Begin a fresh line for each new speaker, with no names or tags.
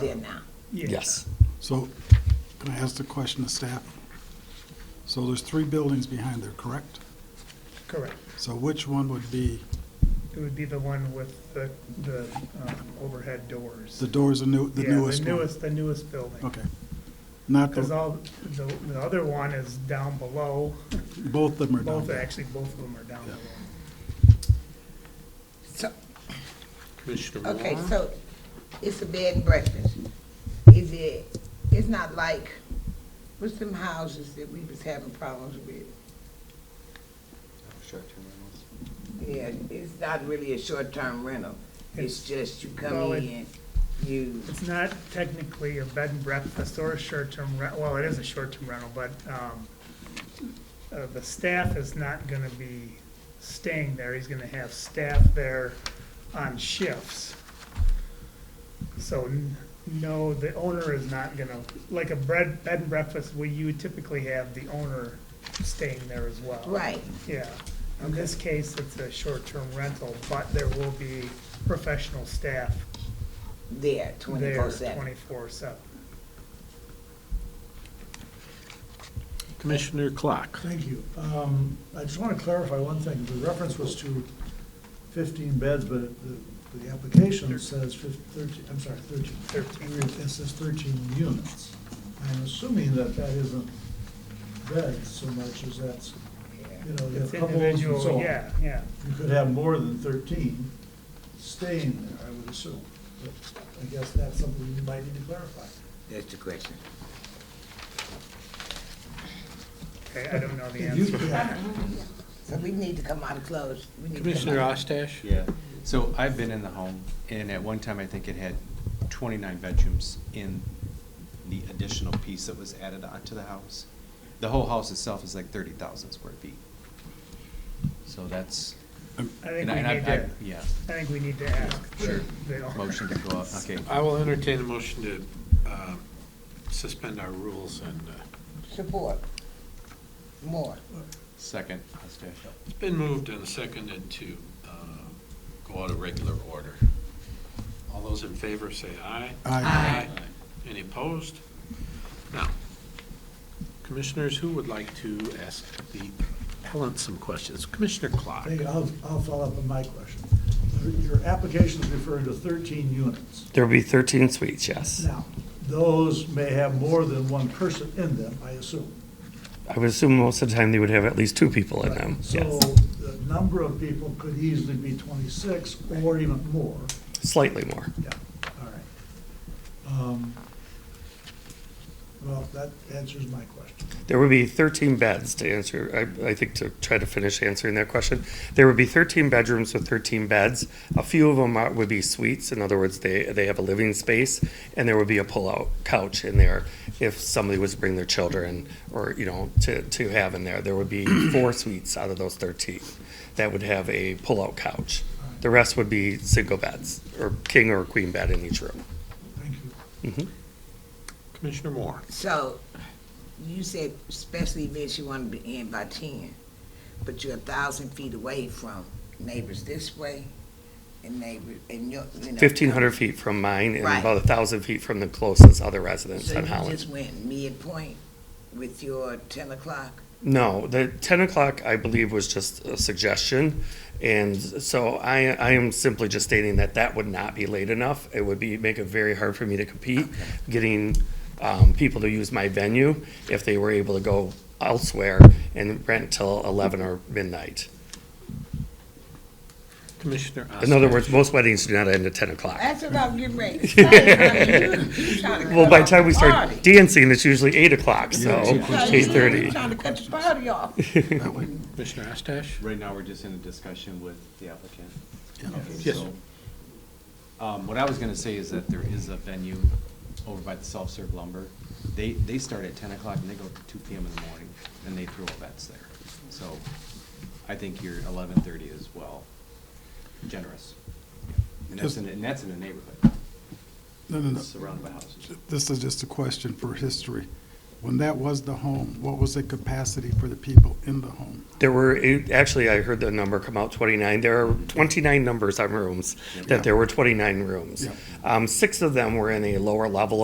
Yes.
So can I ask the question to staff? So there's three buildings behind there, correct?
Correct.
So which one would be,
It would be the one with the, the um, overhead doors.
the door's the new, the
Yeah,
newest
The
one?
newest, the newest building.
Okay. Not,
Because
the-
all, the, the other one is down below.
both of them are down
Both,
there.
actually, both of them are down
Yeah.
below.
So,
Commissioner
okay,
Moore?
so it's a bed and breakfast. Is it, it's not like, what's them houses that we was having problems with? Yeah, it's not really a short-term rental. It's just you
Well,
come
it-
in, you,
It's not technically a bed and breakfast or a short-term rent, well, it is a short-term rental, but, um, uh, the staff is not gonna be staying there. He's gonna have staff there on shifts. So, n- no, the owner is not gonna, like a bread, bed and breakfast, where you would typically have the owner staying there as well.
right,
Yeah, in this case, it's a short-term rental, but there will be professional staff
there,
there
twenty-four seven.
twenty-four seven.
Commissioner Clark?
Thank you. Um, I just want to clarify one thing. The reference was to 15 beds, but the, the application says fif- 13, I'm sorry, 13.
13.
It says 13 units. I'm assuming that that isn't beds so much as that's, you know, you have
It's
couples and so
individual,
on.
yeah, yeah.
You could have more than 13 staying there, I would assume. But I guess that's something you might need to clarify.
That's the question.
Okay, I don't know the
If you-
answer.
yeah.
So we need to come out of close. We need to come
Commissioner
out.
Ostash?
Yeah, so I've been in the home, and at one time, I think it had twenty-nine bedrooms in the additional piece that was added onto the house. The whole house itself is like thirty thousand square feet. So that's.
I think
and I-
we
and I-
need to,
I- Yeah,
I think we need to ask.
Sure.
the owner.
motion to go up, okay.
I will entertain a motion to um, suspend our rules and, uh,
Support. More.
Second, Ostash.
it's been moved and seconded to uh, go out of regular order. All those in favor say aye.
Aye.
Any opposed? Now, commissioners, who would like to ask the appellant some questions? Commissioner Clark?
Hey, I'll, I'll follow up on my question. Your your application is referring to 13 units.
There'll be 13 suites, yes.
Now, those may have more than one person in them, I assume.
I would assume most of the time they would have at least two people in them,
So
yes.
the number of people could easily be 26 or even more.
Slightly more.
Yeah, all right. Um, Well, that answers my question.
There would be 13 beds to answer, I, I think to try to finish answering that question. There would be 13 bedrooms with 13 beds. A few of them are, would be suites, in other words, they, they have a living space, and there would be a pull-out couch in there if somebody was to bring their children or, you know, to, to have in there. There would be four suites out of those 13 that would have a pull-out couch. The rest would be single beds, or king or queen bed in each room.
Thank you.
Commissioner Moore?
So, you said special events you want to be in by ten, but you're a thousand feet away from neighbors this way and neighbors, and your, you know.
1,500 feet from mine and
Right.
about 1,000 feet from the closest other residence
So
on
you
Holland.
just went midpoint with your ten o'clock?
No, the ten o'clock, I believe, was just a suggestion. And so I, I am simply just stating that that would not be late enough. It would be, make it very hard for me to compete, getting, um, people to use my venue if they were able to go elsewhere and rent till eleven or midnight.
Commissioner Ostash?
In other words, most weddings do not end at ten o'clock.
That's what I'm getting ready. to say. You- you trying to
Well, by the
cut
time we
off
start
party.
dancing, it's usually eight o'clock, so
So you-
eight thirty.
You trying to cut the party off.
Commissioner Ostash?
Right now, we're just in a discussion with the applicant. Okay,
Yes.
so, Um, what I was gonna say is that there is a venue over by the self-serve lumber. They, they start at ten o'clock and they go to two PM in the morning, and they throw events there. So I think your eleven-thirty is well generous. And that's in, and that's in a neighborhood,
No, no, no.
surrounded by houses.
This is just a question for history. When that was the home, what was the capacity for the people in the home?
There were, eight- actually, I heard the number come out 29. There are 29 numbers on rooms, that there were 29 rooms.
Yeah.
Um, Six of them were in a lower level